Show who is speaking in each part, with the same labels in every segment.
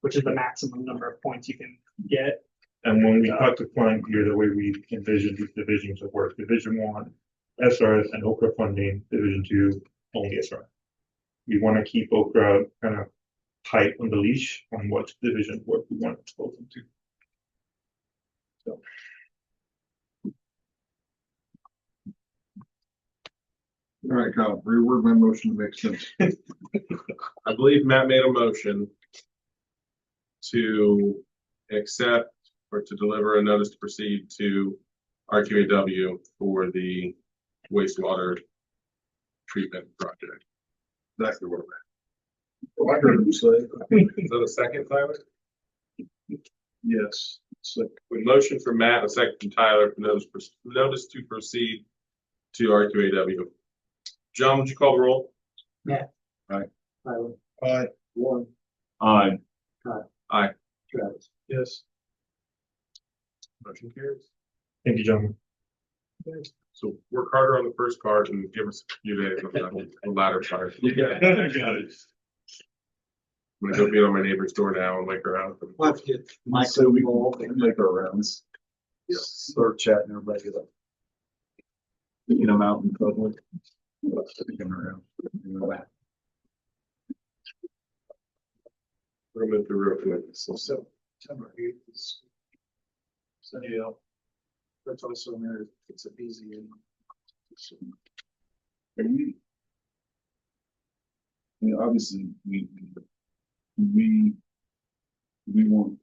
Speaker 1: which is the maximum number of points you can get.
Speaker 2: And when we cut the climb here, the way we envision these divisions of work, division one, SRS and Okra funding, division two, only SRS. We want to keep Okra kind of tight on the leash on what division work we want to expose them to.
Speaker 3: All right, Kyle, reword my motion to make sense.
Speaker 4: I believe Matt made a motion to accept or to deliver a notice to proceed to RQAW for the wastewater treatment project.
Speaker 3: Exactly what Oh, I heard him say.
Speaker 4: Is that a second, Tyler?
Speaker 3: Yes, it's like,
Speaker 4: With motion from Matt, a second from Tyler, for notice, notice to proceed to RQAW. John, would you call the roll?
Speaker 1: Tyler,
Speaker 3: I, one,
Speaker 4: Aye.
Speaker 1: Travis.
Speaker 3: yes.
Speaker 4: Motion carries.
Speaker 2: Thank you, gentlemen.
Speaker 4: So work harder on the first card and give us a few days on the- the latter card.
Speaker 2: Got it.
Speaker 4: I'm gonna go beat on my neighbor's door now and wake her up. and-
Speaker 3: Let's get. So we all can make our rounds. Start chatting, everybody get up. Picking them out in public. Sticking around.
Speaker 4: Room at the roof with us.
Speaker 3: So September eighth is. Sunnydale. That's also in there, it's a busy and. Are we? I mean, obviously, we. We. We want.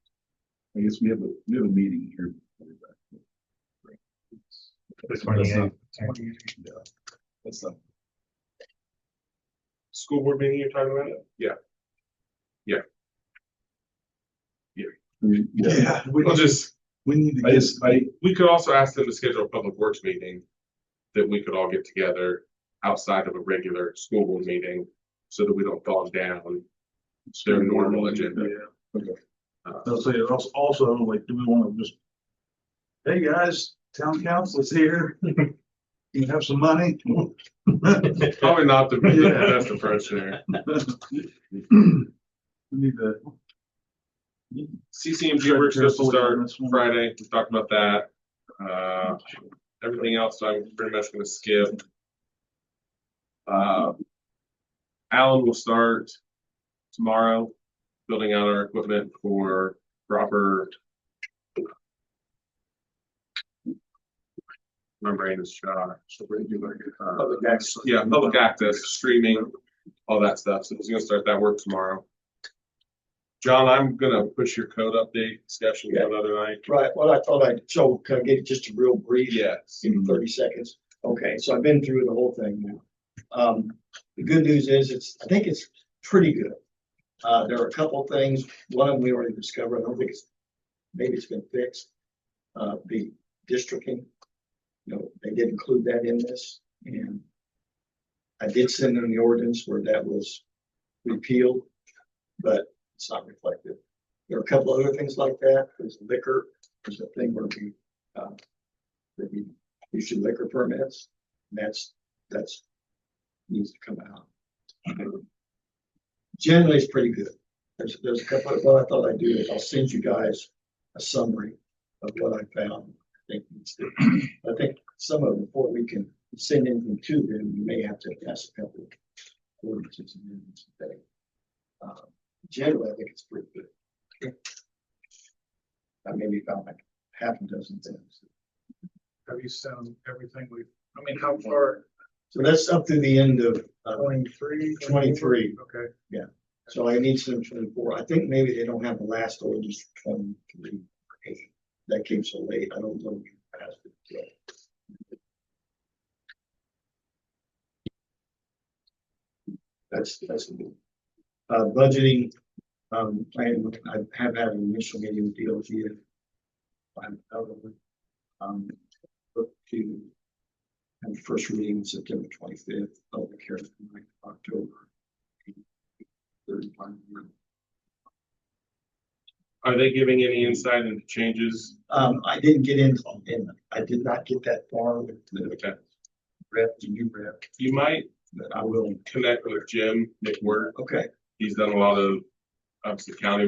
Speaker 3: I guess we have a, we have a meeting here.
Speaker 2: This one, yeah.
Speaker 3: Yeah, That's not.
Speaker 4: School board meeting you're talking about? Yeah.
Speaker 3: Yeah.
Speaker 4: We'll just,
Speaker 3: we need
Speaker 4: I
Speaker 3: guess, I,
Speaker 4: we could also ask them to schedule a public works meeting that we could all get together outside of a regular school board meeting so that we don't bog down. Their normal agenda.
Speaker 3: Yeah, okay.
Speaker 4: Uh,
Speaker 3: I'll say, also, also, like, do we wanna just? Hey, guys, town council is here. You have some money?
Speaker 4: Probably not the the
Speaker 3: Yeah.
Speaker 4: best approach there.
Speaker 3: We Need to.
Speaker 4: CCMG works supposed to start
Speaker 3: This one.
Speaker 4: Friday. We talked about that. Uh, everything else I'm pretty much gonna skip. Uh, Alan will start tomorrow, building out our equipment for proper. My brain is shot. Public access. Yeah, public access, streaming, all that stuff. So he's gonna start that work tomorrow. John, I'm gonna push your code update discussion to another night.
Speaker 5: Right, well, I thought I'd, so can I give just a real brief?
Speaker 4: Yes.
Speaker 5: Give me thirty seconds. Okay, so I've been through the whole thing now. Um, the good news is, it's, I think it's pretty good. Uh, there are a couple of things, one of them we already discovered, I don't think it's, maybe it's been fixed. Uh, the districting, you know, they did include that in this, and I did send them the ordinance where that was repealed, but it's not reflected. There are a couple other things like that, there's liquor, there's a thing where we, uh, that we issue liquor permits, that's, that's, needs to come out. Generally, it's pretty good. There's, there's a couple, what I thought I'd do is I'll send you guys a summary of what I found. I think, needs to- I think some of them, before we can send anything to them, we may have to pass a couple of ordinances and amendments today. Uh, Generally, I think it's pretty good. I maybe found like half a dozen things.
Speaker 3: Have you sent everything we, I mean, how far,
Speaker 5: So that's up to the end of, uh,
Speaker 3: twenty-three?
Speaker 5: 23.
Speaker 3: Okay.
Speaker 5: so I need some twenty-four. I think maybe they don't have the last orders for twenty-three. That came so late. I don't know. if you passed it yet. That's, that's. the deal. Uh, budgeting, um, plan, I have had an initial meeting with DOT. I'm out of it. Um, look to. And first reading September twenty-fifth, public hearing ninth of October. Thirty-one.
Speaker 4: Are they giving any insight into changes?
Speaker 5: Um, I didn't get in, and I did not get that far with the
Speaker 4: Okay.
Speaker 5: rep, the new rep,
Speaker 4: You might
Speaker 5: but I will.
Speaker 4: connect with Jim McWhirter.
Speaker 5: Okay.
Speaker 4: He's done a lot of, obviously county